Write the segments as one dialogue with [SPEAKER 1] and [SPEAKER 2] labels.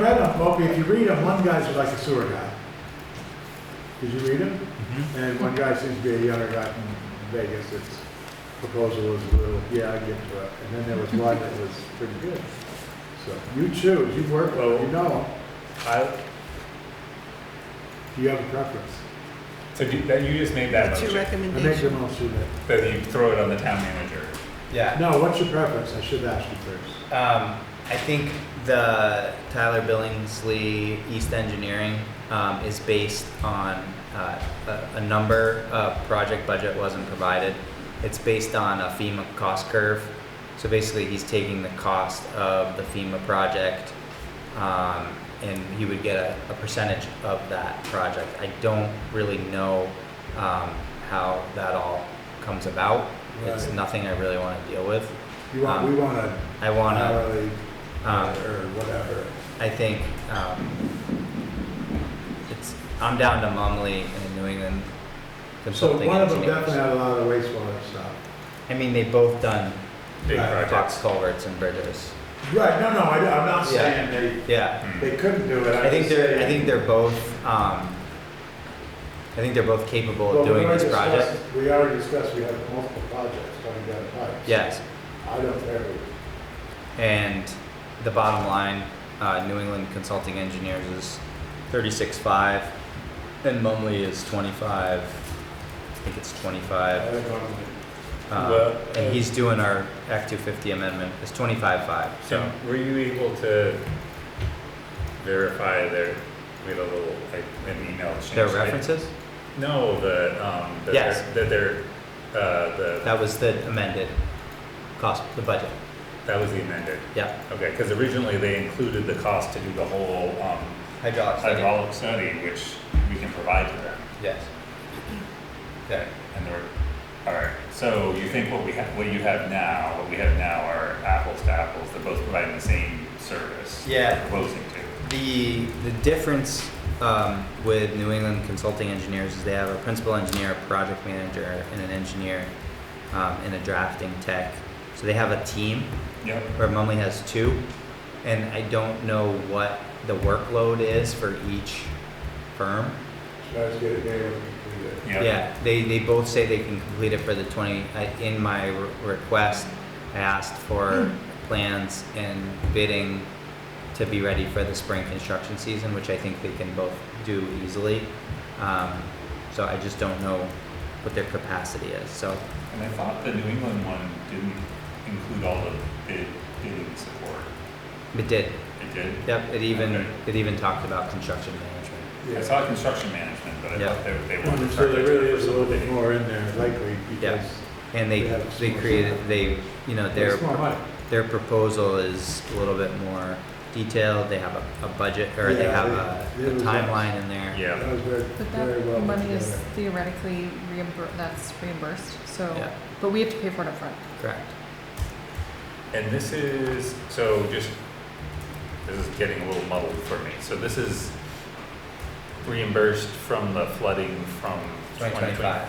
[SPEAKER 1] read them, well, if you read them, one guy's like a sewer guy. Did you read them?
[SPEAKER 2] Mm-hmm.
[SPEAKER 1] And one guy seems to be a younger guy from Vegas, its proposal was a little, yeah, I get to it. And then there was one that was pretty good. So you choose, you work, well, you know,
[SPEAKER 2] I,
[SPEAKER 1] do you have a preference?
[SPEAKER 2] so do, that, you just made that
[SPEAKER 3] What's your
[SPEAKER 1] I
[SPEAKER 2] motion,
[SPEAKER 1] make the
[SPEAKER 3] recommendation?
[SPEAKER 1] motion that,
[SPEAKER 2] that you throw it on the town manager.
[SPEAKER 4] Yeah.
[SPEAKER 1] no, what's your preference? I should ask you first.
[SPEAKER 4] Um, I think the Tyler Billingsley East Engineering um, is based on uh, a, a number. Uh, project budget wasn't provided. It's based on a FEMA cost curve. So basically, he's taking the cost of the FEMA project, um, and he would get a, a percentage of that project. I don't really know um, how that all comes about. It's
[SPEAKER 1] Right.
[SPEAKER 4] nothing I really want to deal with.
[SPEAKER 1] You want, we
[SPEAKER 4] Um,
[SPEAKER 1] want a
[SPEAKER 4] I want to.
[SPEAKER 1] hourly
[SPEAKER 4] Um,
[SPEAKER 1] or whatever.
[SPEAKER 4] I think um, it's. I'm down to Mumley and New England
[SPEAKER 1] So
[SPEAKER 4] consulting
[SPEAKER 1] one of them
[SPEAKER 4] engineers.
[SPEAKER 1] definitely had a lot of wastewater stuff.
[SPEAKER 4] I mean, they've both done
[SPEAKER 2] Big
[SPEAKER 1] Right,
[SPEAKER 4] box
[SPEAKER 2] projects.
[SPEAKER 4] culverts and bridges.
[SPEAKER 1] Right, no, no, I, am not
[SPEAKER 4] Yeah.
[SPEAKER 1] saying they,
[SPEAKER 4] Yeah,
[SPEAKER 2] Hmm.
[SPEAKER 1] they couldn't do it.
[SPEAKER 4] I think they're. I think they're both. Um, I think they're both capable of doing this project.
[SPEAKER 1] We already discussed, we have multiple projects coming down the pipe.
[SPEAKER 4] Yes,
[SPEAKER 1] I don't care.
[SPEAKER 4] and the bottom line, uh, New England Consulting Engineers is 36.5, and Mumley is 25. I think it's 25.
[SPEAKER 1] I don't know.
[SPEAKER 4] Uh,
[SPEAKER 2] Well, uh,
[SPEAKER 4] And he's doing our Act 250 amendment, it's 25-5, so.
[SPEAKER 2] So were you able to verify their, we had a little, like, an email exchange?
[SPEAKER 4] Their
[SPEAKER 2] right?
[SPEAKER 4] references?
[SPEAKER 2] No, the, um, that
[SPEAKER 4] Yes.
[SPEAKER 2] they're, that they're, uh, the,
[SPEAKER 4] That was the amended cost, the budget,
[SPEAKER 2] that was the amended.
[SPEAKER 4] yeah.
[SPEAKER 2] Okay, because originally they included the cost to do the whole, um,
[SPEAKER 4] Hydraulic
[SPEAKER 2] hydraulic study, which we can provide to them.
[SPEAKER 4] Yes. Okay.
[SPEAKER 2] And they're, all right, so you think what we have, what you have now, what we have now are apples to apples, they're both providing the same service.
[SPEAKER 4] Yeah.
[SPEAKER 2] they're Proposing to.
[SPEAKER 4] The, the difference um, with New England Consulting Engineers is they have a principal engineer, a project manager, and an engineer, um, and a drafting tech. So they have a team.
[SPEAKER 2] Yep.
[SPEAKER 4] where Mumley has two, and I don't know what the workload is for each firm.
[SPEAKER 1] Should I just get a day when we do it?
[SPEAKER 2] Yep.
[SPEAKER 4] Yeah, they, they both say they can complete it for the twenty, I, in my re- request, I asked for plans and bidding to be ready for the spring construction season, which I think they can both do easily. Um, so I just don't know what their capacity is, so,
[SPEAKER 2] And I thought the New England one didn't include all the bid, bidding support.
[SPEAKER 4] it did,
[SPEAKER 2] It did?
[SPEAKER 4] yep, it even,
[SPEAKER 2] Okay.
[SPEAKER 4] it even talked about construction management.
[SPEAKER 2] I
[SPEAKER 1] Yeah.
[SPEAKER 2] saw construction management, but I
[SPEAKER 4] Yeah.
[SPEAKER 2] thought they, they wanted.
[SPEAKER 1] And So there really
[SPEAKER 2] to
[SPEAKER 1] is a little bit more in there likely because
[SPEAKER 4] And they,
[SPEAKER 1] They have
[SPEAKER 4] they
[SPEAKER 1] small
[SPEAKER 4] created,
[SPEAKER 1] sample.
[SPEAKER 4] they, you know, their,
[SPEAKER 1] it's more money.
[SPEAKER 4] their proposal is a little bit more detailed, they have a, a budget, or they
[SPEAKER 1] Yeah,
[SPEAKER 4] have
[SPEAKER 1] they-
[SPEAKER 4] a, a
[SPEAKER 1] they was-
[SPEAKER 4] timeline in there.
[SPEAKER 1] That
[SPEAKER 2] Yeah,
[SPEAKER 1] was very,
[SPEAKER 3] But
[SPEAKER 1] very well
[SPEAKER 3] that
[SPEAKER 1] put
[SPEAKER 3] money is
[SPEAKER 1] together.
[SPEAKER 3] theoretically reimbur, that's reimbursed,
[SPEAKER 4] Yeah.
[SPEAKER 3] so, but we have to pay for it upfront.
[SPEAKER 4] Correct.
[SPEAKER 2] and this is, so just, this is getting a little muddled for me. So this is reimbursed from the flooding from 2020.
[SPEAKER 4] Twenty twenty-five,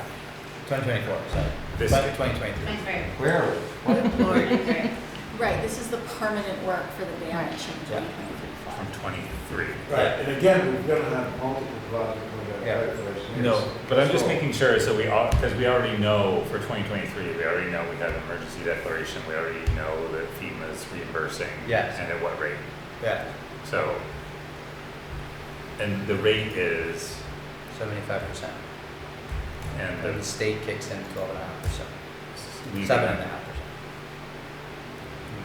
[SPEAKER 4] twenty twenty-four, sorry.
[SPEAKER 2] This-
[SPEAKER 4] Twenty twenty-three.
[SPEAKER 5] Right,
[SPEAKER 4] Where are we?
[SPEAKER 5] Right, this is the permanent work for the damage in
[SPEAKER 4] Yeah.
[SPEAKER 5] 2023 flood.
[SPEAKER 2] From twenty-three.
[SPEAKER 1] Right, and again, we're gonna have multiple projects coming
[SPEAKER 4] Yeah.
[SPEAKER 1] down the pipe for us.
[SPEAKER 4] No,
[SPEAKER 2] But I'm just
[SPEAKER 1] So-
[SPEAKER 2] making sure, so we all, because we already know for twenty twenty-three, we already know we have emergency declaration, we already know that FEMA's reimbursing.
[SPEAKER 4] Yes.
[SPEAKER 2] And at what rate,
[SPEAKER 4] Yeah,
[SPEAKER 2] so. And the rate is,
[SPEAKER 4] seventy-five percent.
[SPEAKER 2] and
[SPEAKER 4] And the
[SPEAKER 2] the.
[SPEAKER 4] state kicks in twelve and a half percent,
[SPEAKER 2] we-
[SPEAKER 4] seven and a half percent.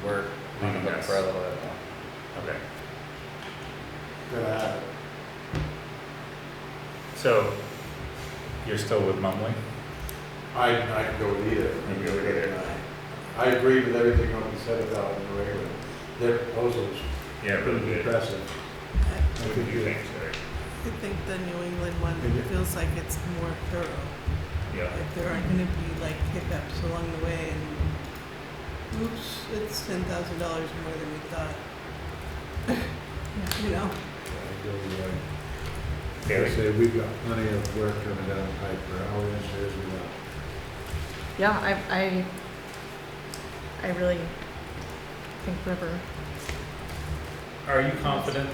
[SPEAKER 4] We're leaving
[SPEAKER 2] Leaving
[SPEAKER 4] it
[SPEAKER 2] us.
[SPEAKER 4] for a little bit more.
[SPEAKER 2] Okay,
[SPEAKER 1] Gonna have it.
[SPEAKER 2] so you're still with Mumley?
[SPEAKER 1] I, I can go with either.
[SPEAKER 2] can go with either.
[SPEAKER 1] I agree with everything Owen said about New England. Their proposals
[SPEAKER 2] Yeah,
[SPEAKER 1] are pretty impressive. I
[SPEAKER 2] What do
[SPEAKER 1] think
[SPEAKER 2] you
[SPEAKER 1] you-
[SPEAKER 2] think, Sherry?
[SPEAKER 6] I think the New England one
[SPEAKER 1] Yeah.
[SPEAKER 6] feels like it's more thorough.
[SPEAKER 2] Yeah,
[SPEAKER 6] Like there aren't gonna be like hiccups along the way and oops, it's ten thousand dollars more than we thought, you know?
[SPEAKER 1] I go with either. I
[SPEAKER 2] Gary?
[SPEAKER 1] say we've got plenty of work coming down the pipe for our engineers we got.
[SPEAKER 3] Yeah, I, I, I really think whoever,
[SPEAKER 2] Are you confident